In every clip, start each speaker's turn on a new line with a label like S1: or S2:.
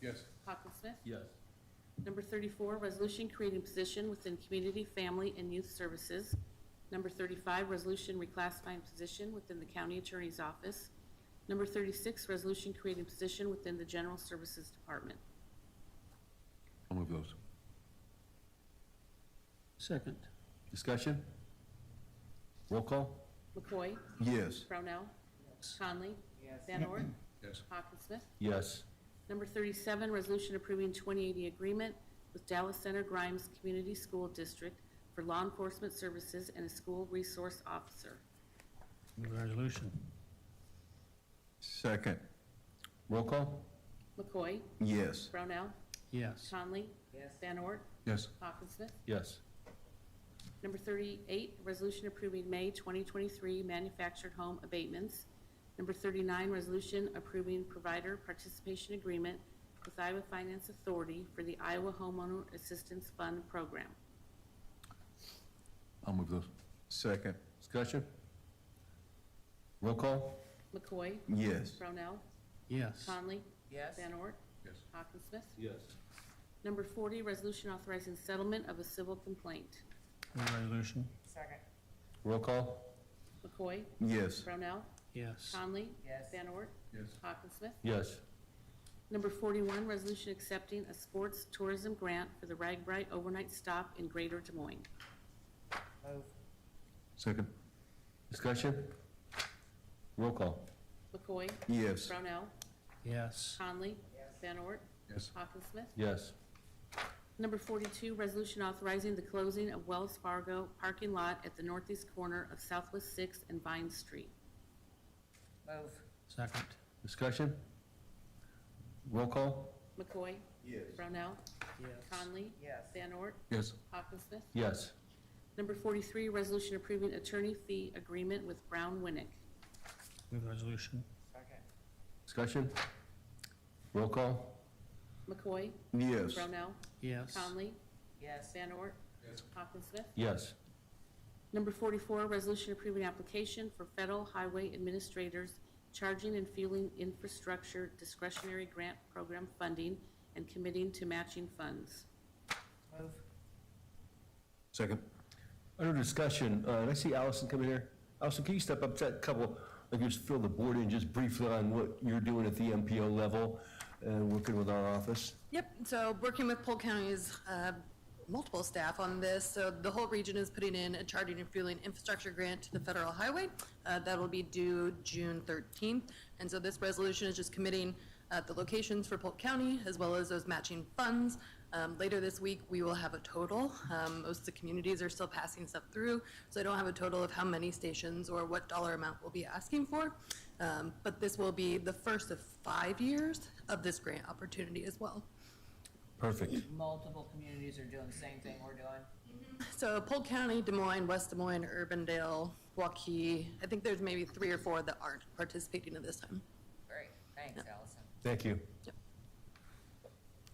S1: Yes.
S2: Hawkinsmith.
S3: Yes.
S2: Number 34, resolution creating position within Community, Family, and Youth Services. Number 35, resolution reclassifying position within the County Attorney's Office. Number 36, resolution creating position within the General Services Department.
S4: I'll move those.
S3: Second.
S4: Discussion? Roll call?
S2: McCoy?
S4: Yes.
S2: Brownell? Conley? Van Ork?
S1: Yes.
S2: Hawkinsmith?
S4: Yes.
S2: Number 37, resolution approving 2080 agreement with Dallas Center Grimes Community School District for law enforcement services and a school resource officer.
S3: Move the resolution.
S4: Second. Roll call?
S2: McCoy?
S4: Yes.
S2: Brownell?
S3: Yes.
S2: Conley? Van Ork?
S1: Yes.
S2: Hawkinsmith?
S4: Yes.
S2: Number 38, resolution approving May 2023 manufactured home abatements. Number 39, resolution approving provider participation agreement with Iowa Finance Authority for the Iowa Homeowner Assistance Fund Program.
S4: I'll move those. Second. Discussion? Roll call?
S2: McCoy?
S4: Yes.
S2: Brownell?
S3: Yes.
S2: Conley?
S5: Yes.
S2: Van Ort?
S1: Yes.
S2: Hawkinsmith?
S3: Yes.
S2: Number 40, resolution authorizing settlement of a civil complaint.
S3: Move the resolution.
S5: Second.
S4: Roll call?
S2: McCoy?
S4: Yes.
S2: Brownell?
S3: Yes.
S2: Conley?
S5: Yes.
S2: Van Ort?
S1: Yes.
S2: Hawkinsmith?
S4: Yes.
S2: Number 41, resolution accepting a sports tourism grant for the Ragbright overnight stop in Greater Des Moines.
S5: Move.
S4: Second. Discussion? Roll call?
S2: McCoy,
S4: Yes.
S2: Brownell,
S3: Yes.
S2: Conley,
S5: Yes.
S2: Van Ort,
S1: Yes.
S2: Hawkinsmith.
S4: Yes.
S2: Number 42, resolution authorizing the closing of Wells Fargo parking lot at the northeast corner of Southwest 6th and Vine Street.
S5: Move.
S3: Second.
S4: Discussion? Roll call?
S2: McCoy,
S1: Yes.
S2: Brownell,
S3: Yes.
S2: Conley,
S5: Yes.
S2: Van Ort,
S1: Yes.
S2: Hawkinsmith.
S4: Yes.
S2: Number 43, resolution approving attorney fee agreement with Brown Winnick.
S3: Move the resolution.
S5: Second.
S4: Discussion? Roll call?
S2: McCoy,
S4: Yes.
S2: Brownell,
S3: Yes.
S2: Conley,
S5: Yes.
S2: Van Ort,
S1: Yes.
S2: Hawkinsmith.
S4: Yes.
S2: Number 44, resolution approving application for Federal Highway Administrators Charging and Fueling Infrastructure Discretionary Grant Program funding and committing to matching funds.
S5: Move.
S4: Second. Under discussion, uh, and I see Allison coming here. Allison, can you step up to that couple, like just fill the board in just briefly on what you're doing at the MPO level and working with our office?
S6: Yep, so working with Polk County's uh, multiple staff on this, so the whole region is putting in a charging and fueling infrastructure grant to the federal highway. Uh, That will be due June 13th, and so this resolution is just committing uh, the locations for Polk County as well as those matching funds. Um, Later this week, we will have a total. Um, Most of the communities are still passing stuff through, so I don't have a total of how many stations or what dollar amount we'll be asking for. Um, But this will be the first of five years of this grant opportunity as well.
S4: Perfect.
S5: Multiple communities are doing the same thing we're doing.
S6: So Polk County, Des Moines, West Des Moines, Urbandale, Waukee, I think there's maybe three or four that aren't participating at this time.
S5: Great. Thanks, Allison.
S4: Thank you.
S6: Yep.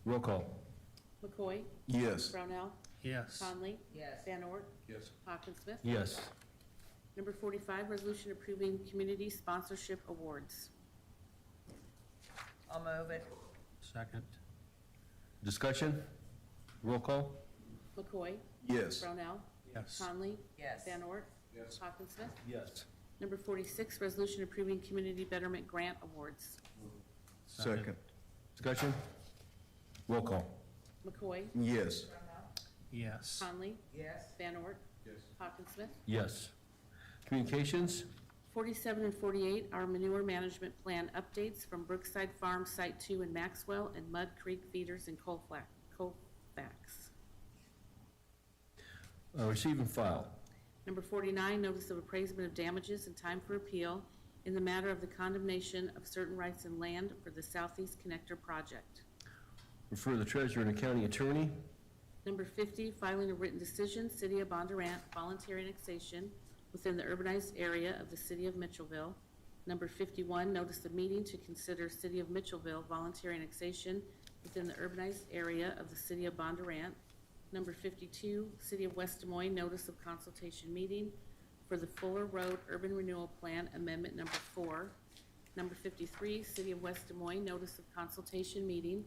S4: Roll call.
S2: McCoy,
S4: Yes.
S2: Brownell,
S3: Yes.
S2: Conley,
S5: Yes.
S2: Van Ort,
S1: Yes.
S2: Hawkinsmith.
S4: Yes.
S2: Number 45, resolution approving community sponsorship awards.
S5: I'll move it.
S3: Second.
S4: Discussion? Roll call?
S2: McCoy,
S4: Yes.
S2: Brownell,
S3: Yes.
S2: Conley,
S5: Yes.
S2: Van Ort,
S1: Yes.
S2: Hawkinsmith.
S4: Yes.
S2: Number 46, resolution approving community betterment grant awards.
S3: Second.
S4: Discussion? Roll call?
S2: McCoy,
S4: Yes.
S3: Yes.
S2: Conley,
S5: Yes.
S2: Van Ort,
S1: Yes.
S2: Hawkinsmith.
S4: Yes. Communications?
S2: 47 and 48 are manure management plan updates from Brookside Farm Site 2 in Maxwell and Mud Creek Feeders in Colfa- Colfax.
S4: Uh, Receive and file.
S2: Number 49, notice of appraisement of damages and time for appeal in the matter of the condemnation of certain rights and land for the Southeast Connector Project.
S4: Refer the treasurer and county attorney.
S2: Number 50, filing a written decision, City of Bondurant, voluntary annexation within the urbanized area of the City of Mitchellville. Number 51, notice of meeting to consider City of Mitchellville voluntary annexation within the urbanized area of the City of Bondurant. Number 52, City of West Des Moines, notice of consultation meeting for the Fuller Road Urban Renewal Plan Amendment Number 4. Number 53, City of West Des Moines, notice of consultation meeting